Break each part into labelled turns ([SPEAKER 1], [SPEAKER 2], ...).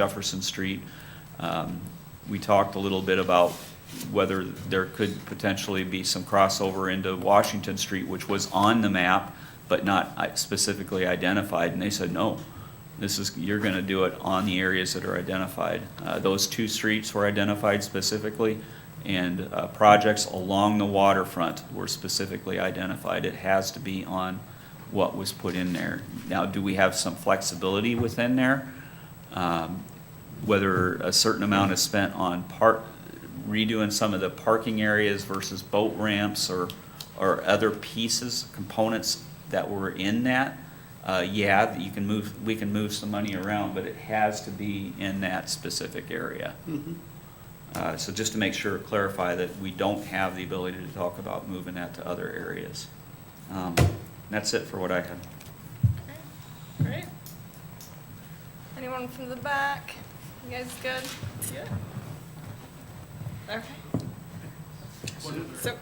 [SPEAKER 1] Jefferson Street. Um, We talked a little bit about whether there could potentially be some crossover into Washington Street, which was on the map, but not i- specifically identified, and they said, no. This is, you're gonna do it on the areas that are identified. Uh, Those two streets were identified specifically, and uh, projects along the waterfront were specifically identified. It has to be on what was put in there. Now, do we have some flexibility within there? um, whether a certain amount is spent on part, redoing some of the parking areas versus boat ramps or, or other pieces, components that were in that. Uh, yeah, that you can move, we can move some money around, but it has to be in that specific area. Uh, so just to make sure, clarify that we don't have the ability to talk about moving that to other areas. Um, That's it for what I had.
[SPEAKER 2] Great. Anyone from the back? You guys good? Yeah. Okay.
[SPEAKER 3] One other,
[SPEAKER 2] So,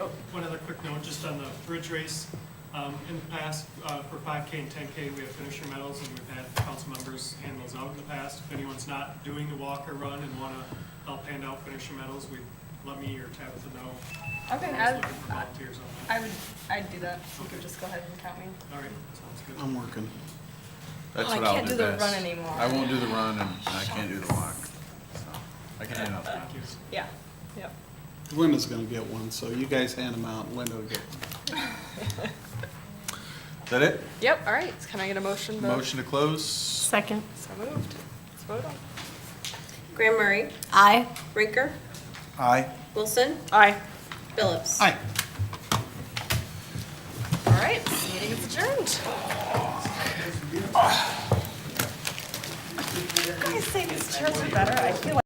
[SPEAKER 2] oh,
[SPEAKER 3] one other quick note, just on the bridge race. Um, in the past, uh, for five K and ten K, we have finisher medals and we've had council members hand those out in the past. If anyone's not doing the walk or run and wanna help hand out finisher medals, we, let me or Tabitha know.
[SPEAKER 2] okay,
[SPEAKER 3] We're
[SPEAKER 2] I,
[SPEAKER 3] always looking for volunteers on that.
[SPEAKER 2] I would, I'd do that. You could just go ahead and count me.
[SPEAKER 3] All right, sounds good.
[SPEAKER 4] I'm working.
[SPEAKER 5] That's
[SPEAKER 2] Oh, I
[SPEAKER 5] what I'll
[SPEAKER 2] can't
[SPEAKER 5] do
[SPEAKER 2] do the run
[SPEAKER 5] best.
[SPEAKER 2] anymore.
[SPEAKER 5] I won't do the run and I can't do the walk. So I can handle that.
[SPEAKER 3] Thank you.
[SPEAKER 2] Yeah, yep.
[SPEAKER 4] Linda's gonna get one, so you guys hand them out, and Linda will get one.
[SPEAKER 5] Is that it?
[SPEAKER 2] Yep, all right, can I get a motion? to-
[SPEAKER 5] Motion to close?
[SPEAKER 6] Second.
[SPEAKER 2] So moved. Let's vote on. it.
[SPEAKER 7] Graham Murray.
[SPEAKER 6] Aye.
[SPEAKER 7] Rinker.
[SPEAKER 5] Aye.
[SPEAKER 7] Wilson.
[SPEAKER 2] Aye.
[SPEAKER 7] Phillips.
[SPEAKER 4] Hi.
[SPEAKER 2] All right, this meeting is adjourned. You guys say these chairs are better, I feel like.